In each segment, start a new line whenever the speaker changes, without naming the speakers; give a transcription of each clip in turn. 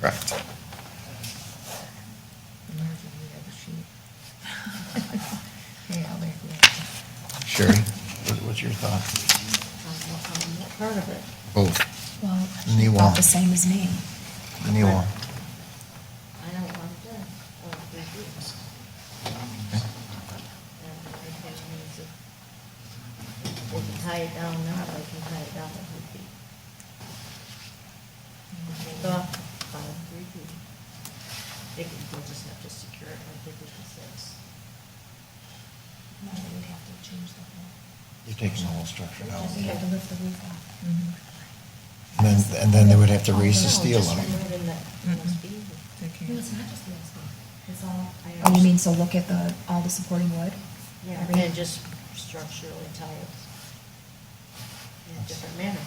Correct. Sherry, what- what's your thought?
Part of it.
Both,
Well,
Knee
she
wall.
thought the same as me.
any one.
I don't want that, or refuse.
Okay.
And I think we need to- They can tie it down now, they can tie it down if we keep. Take off, five, three feet. They can, they'll just have to secure it like they did the six.
You're taking the whole structure down.
We had to lift the roof off.
And then, and then they would have to raise the
No,
steel
just
on it.
removing that must be easy.
It's all.
I
Oh, you
understand.
mean, so look at the, all the supporting wood?
Yeah,
Every-
and just structurally tie it in a different manner.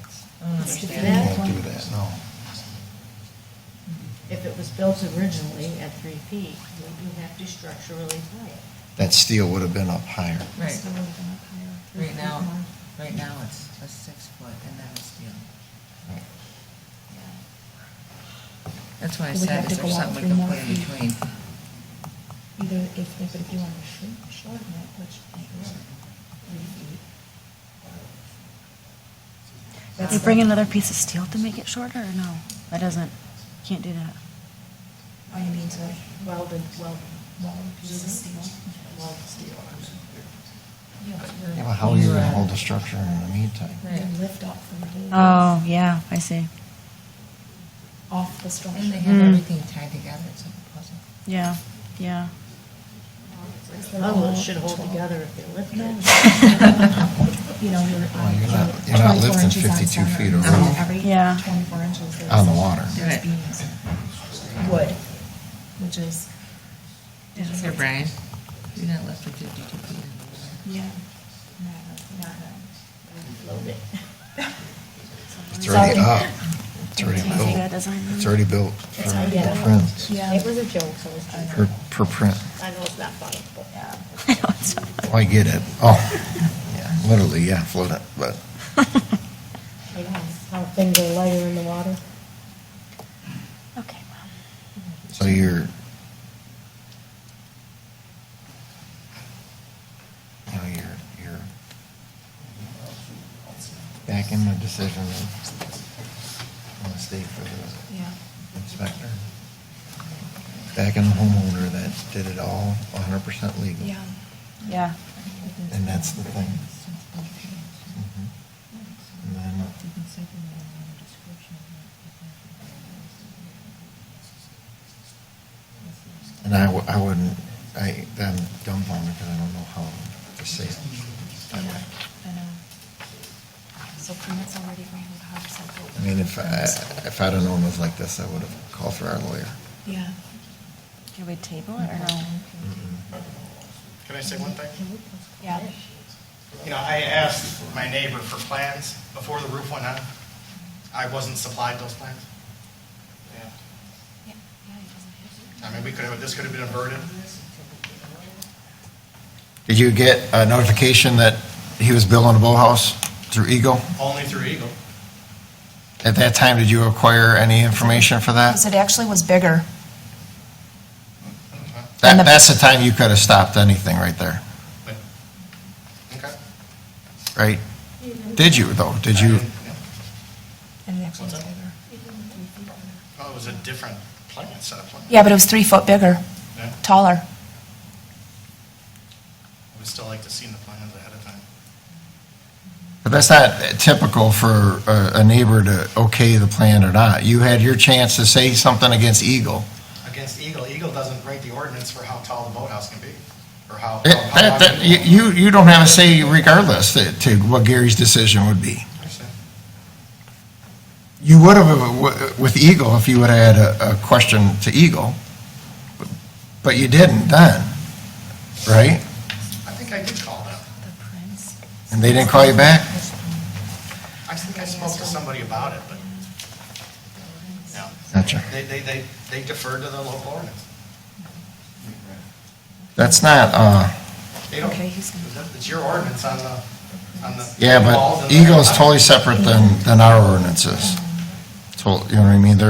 It's
Understand
different.
that?
Can't do that, no.
If it was built originally at three feet, we do have to structurally tie it.
That steel would have been up higher.
Right.
It's still would've been up higher.
Right now, right now it's a six foot and that was steel. That's why I
Do we
said,
have to
is there
go out
something we
three
can
more
put in
feet?
between?
Either if, if, if you want to shrink, shorten it, which they would. That's
You
the-
bring another piece of steel to make it shorter, or no? That doesn't, can't do that.
Oh, you mean to
Welded, welded.
weld a piece of steel?
Welded steel on it.
Yeah, but uh, how are you gonna hold the structure in the
And
meantime?
then lift up from the.
Oh, yeah, I see.
Off the structure. Mm-hmm.
And they
Mm.
have everything tied together, it's like a puzzle.
Yeah, yeah.
Oh, well, it should hold together if they lift
No,
it.
You know, you're,
Well,
um,
you're
you
not-
know,
you're not
24
lifting
inches on
52
center,
feet of
so
rope.
Every
Yeah.
twenty-four inches. there's-
On the water.
There's
Right.
beams. Wood, which is.
Here, Brian, you're not left with fifty-two feet.
Yeah. Not- not a-
Load it.
It's already
Something.
up. It's already
Can't take
built.
that design.
It's already built for
how you
her
get
print,
Yeah.
It was a joke, so it's just,
her, her print.
I know it's not funny, but.
Yeah.
I know, it's not-
Oh, I get it. Oh, yeah, literally, yeah, float it, but
I know How things are lighter in the water.
Okay, well.
So you're. You know, you're, you're. Back in the decision of, on the state for the
Yeah.
inspector. Back in the homeowner that did it all hundred percent legal.
Yeah.
Yeah,
And that's the thing. Mhm. And then, and I, w- I wouldn't, I, I'm dumbfounded because I don't know how to say it.
I know. I know. So permits already ran out of cycle.
I mean, if I, if I'd have known it was like this, I would have called for our lawyer.
Yeah.
can we table it or no?
Can I say one thing?
Yeah.
You know, I asked my neighbor for plans before the roof went on. I wasn't supplied those plans. Yeah. I mean, we could have, this could have been averted.
Did you get a notification that he was building a boathouse through Eagle?
Only through Eagle.
At that time, did you acquire any information for that?
Because it actually was bigger.
Uh-huh.
That, that's the time you could have stopped anything right there,
But, okay.
right? Did you though? Did you?
And it actually was
What's that?
bigger.
Well, it was a different plan, set of plans.
Yeah, but it was three foot bigger,
Yeah.
taller.
I would still like to see the plans ahead of time.
But that's not typical for a, a neighbor to okay the plan or not. You had your chance to say something against Eagle.
Against Eagle, Eagle doesn't write the ordinance for how tall the boathouse can be, or how.
It-
how- how
that- that-
wide-
you- you, you don't have a say regardless to, to what Gary's decision would be.
I understand.
You would have uh, with Eagle if you would have had a, a question to Eagle, but you didn't then, right?
I think I did call them.
The prince.
And they didn't call you back?
I think I spoke to somebody about it, but, no.
Gotcha.
They, they, they they deferred to the local ordinance.
That's not, uh,
They don't,
Okay, he's gonna-
it's your ordinance on the, on the.
yeah,
walls
but
and the-
Eagle's totally separate than, than our ordinances. So, you know what I mean? They're